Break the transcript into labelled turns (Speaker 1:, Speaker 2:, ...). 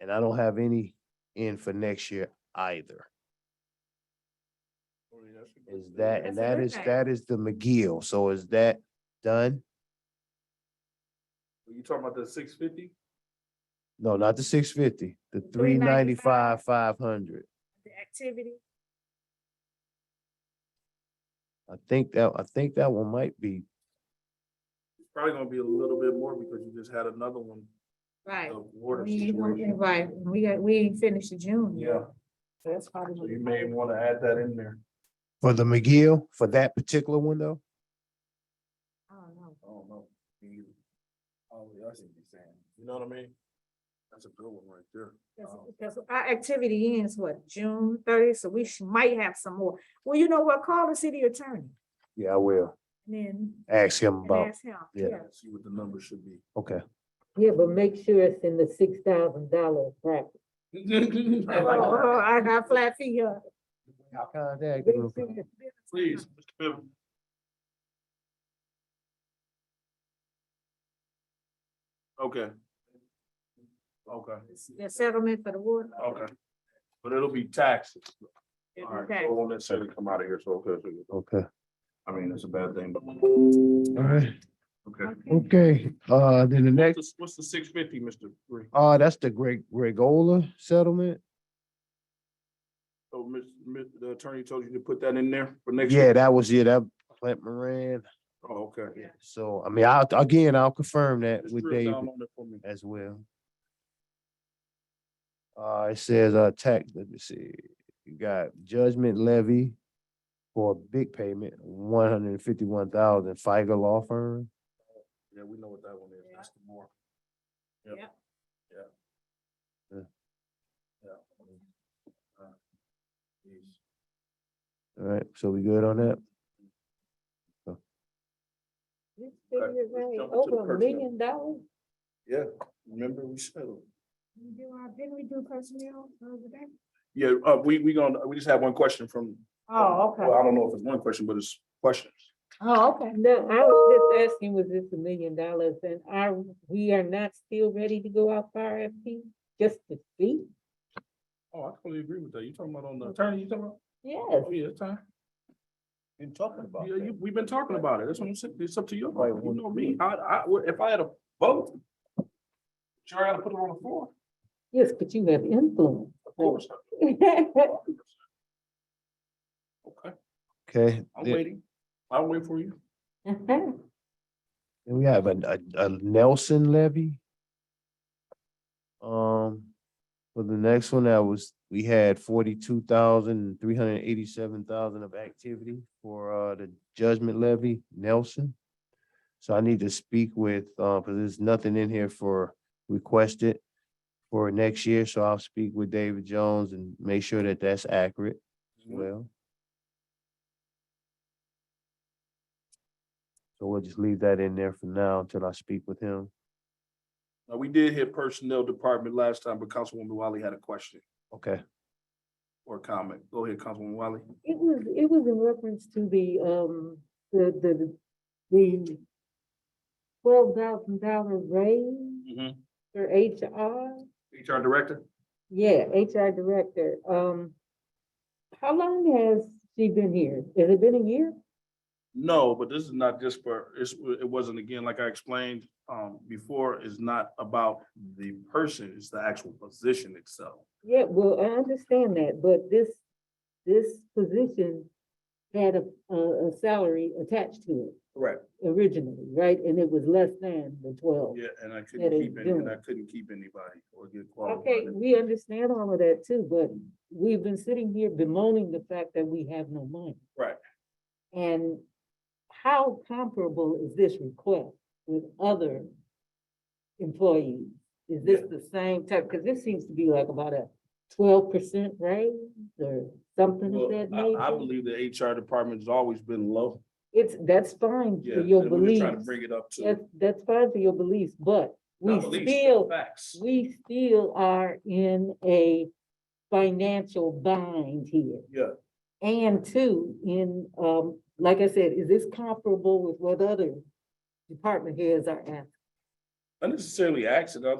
Speaker 1: And I don't have any in for next year either. Is that,
Speaker 2: That's
Speaker 1: and that is,
Speaker 2: terrific.
Speaker 1: that is the McGill. So is that done?
Speaker 3: You talking about the six fifty?
Speaker 1: No, not the six fifty, the three
Speaker 2: 395.
Speaker 1: ninety-five, five hundred.
Speaker 2: the activity.
Speaker 1: I think that, I think that one might be,
Speaker 3: Probably gonna be a little bit more because you just had another one
Speaker 2: Right.
Speaker 3: of water
Speaker 2: We-
Speaker 3: situation.
Speaker 2: Right, we got, we ain't finished the June. yet.
Speaker 3: Yeah,
Speaker 2: So That's probably.
Speaker 3: so
Speaker 2: what
Speaker 3: you
Speaker 2: it
Speaker 3: may
Speaker 2: is.
Speaker 3: wanna add that in there.
Speaker 1: for the McGill, for that particular window?
Speaker 2: I don't know.
Speaker 3: I don't know. You oh, yeah, I see what you're saying. You know what I mean? That's a good one right there.
Speaker 2: Because-
Speaker 3: Um,
Speaker 2: Because our activity ends what, June thirtieth, so we sh- might have some more. Well, you know what, call the city attorney
Speaker 1: Yeah, I will.
Speaker 2: and then
Speaker 1: Ask him
Speaker 2: and
Speaker 1: about,
Speaker 2: ask him,
Speaker 1: yeah.
Speaker 2: yeah.
Speaker 3: See what the number should be.
Speaker 1: okay.
Speaker 4: Yeah, but make sure it's in the six thousand dollar bracket.
Speaker 2: Oh, oh, I got flat feet here.
Speaker 1: Contact
Speaker 4: Make
Speaker 1: him.
Speaker 4: sure it's-
Speaker 3: Please, Mr. Pivot. Okay. Okay,
Speaker 2: The settlement for the water.
Speaker 3: okay. But it'll be taxes. All Oh, right, so
Speaker 2: Okay,
Speaker 3: it won't necessarily come out of here, so, okay, so-
Speaker 1: Okay,
Speaker 3: I mean, it's a bad thing, but.
Speaker 1: all right,
Speaker 3: Okay.
Speaker 2: okay.
Speaker 1: okay, uh, then the next,
Speaker 3: What's the- What's the six fifty, Mr. Green?
Speaker 1: uh, that's the Greg, Gregola settlement.
Speaker 3: So, Ms., Ms., Oh, the attorney told you to put that in there for next?
Speaker 1: Yeah,
Speaker 3: year?
Speaker 1: that was it, that Clint Moran,
Speaker 3: Oh, okay.
Speaker 2: Yeah.
Speaker 1: so, I mean, I'll, again, I'll confirm that
Speaker 3: Just
Speaker 1: with
Speaker 3: drill
Speaker 1: David.
Speaker 3: down on it for me.
Speaker 1: as well. Uh, it says, uh, tax, let me see, you got judgment levy for a big payment, one hundred and fifty-one thousand, FICA law firm.
Speaker 3: Yeah, we know what that one is. That's the more. Yep.
Speaker 2: Yep.
Speaker 3: Yeah.
Speaker 1: Yeah.
Speaker 3: Yeah. Uh, geez.
Speaker 1: All right, so we good on that?
Speaker 4: this figure
Speaker 3: let's
Speaker 4: right,
Speaker 3: jump into the
Speaker 4: Over a
Speaker 3: personnel.
Speaker 4: million dollars?
Speaker 3: Yeah, remember we settled.
Speaker 2: We do our, didn't we do personnel the other day?
Speaker 3: Yeah, uh, we, we gonna, we just have one question from.
Speaker 2: Oh,
Speaker 3: Well, I
Speaker 2: okay,
Speaker 3: don't know if it's one question, but it's questions.
Speaker 2: oh, okay.
Speaker 4: No, I was just asking, was this a million dollars and are, we are not still ready to go out for RFP, just to see?
Speaker 3: Oh, I totally agree with that. You talking about on the attorney, you talking about?
Speaker 4: Yes,
Speaker 3: Oh, yeah, it's time.
Speaker 5: Been talking about
Speaker 3: Yeah, you,
Speaker 5: that.
Speaker 3: we've been talking about it. That's what I'm saying. It's up to you.
Speaker 5: Right,
Speaker 3: You
Speaker 5: well-
Speaker 3: know me. I, I, would- if I had a vote, sure, I gotta put it on the floor.
Speaker 4: yes, but you have influence.
Speaker 3: Of course. Okay,
Speaker 1: Okay,
Speaker 3: I'm
Speaker 1: then
Speaker 3: waiting. I'll wait for you.
Speaker 1: then we have a, a a Nelson levy. Um, for the next one, that was, we had forty-two thousand, three hundred and eighty-seven thousand of activity for, uh, the judgment levy, Nelson. So I need to speak with, uh, because there's nothing in here for requested for next year, so I'll speak with David Jones and make sure that that's accurate as well. So we'll just leave that in there for now until I speak with him.
Speaker 3: Now, we did hit personnel department last time, but Councilwoman Wiley had a question
Speaker 1: Okay,
Speaker 3: or comment. Go ahead, Councilwoman Wiley.
Speaker 4: It was, it was in reference to the, um, the, the, the twelve thousand dollar raise
Speaker 5: Mm-hmm.
Speaker 4: for HR.
Speaker 3: HR Director?
Speaker 4: Yeah, HR director, um, how long has she been here? Has it been a year?
Speaker 3: No, but this is not just for, it's, it wasn't again, like I explained, um, before, it's not about the person, it's the actual position itself.
Speaker 4: Yeah, well, I understand that, but this, this position had a, a, a salary attached to
Speaker 3: Correct.
Speaker 4: it originally, right? And it was less than the twelve.
Speaker 3: Yeah, and I
Speaker 4: That
Speaker 3: couldn't
Speaker 4: is
Speaker 3: keep, any- and I
Speaker 4: doing.
Speaker 3: couldn't keep anybody or get qualified.
Speaker 4: Okay, we understand all of that too, but we've been sitting here bemoaning the fact that we have no money.
Speaker 3: Right.
Speaker 4: And how comparable is this request with other employees? Is this the same type? Because this seems to be like about a twelve percent raise or something of
Speaker 3: Well,
Speaker 4: that
Speaker 3: I, I
Speaker 4: nature.
Speaker 3: believe the HR department has always been low.
Speaker 4: It's, that's fine
Speaker 3: Yeah.
Speaker 4: for your
Speaker 3: and we're just Trying to
Speaker 4: beliefs.
Speaker 3: bring it up to.
Speaker 4: That's, that's fine for your beliefs, but we
Speaker 3: not beliefs,
Speaker 4: still,
Speaker 3: Facts.
Speaker 4: we still are in a financial bind here.
Speaker 3: Yeah.
Speaker 4: And two, in, um, like I said, is this comparable with what other department heads are asking?
Speaker 3: unnecessarily accident.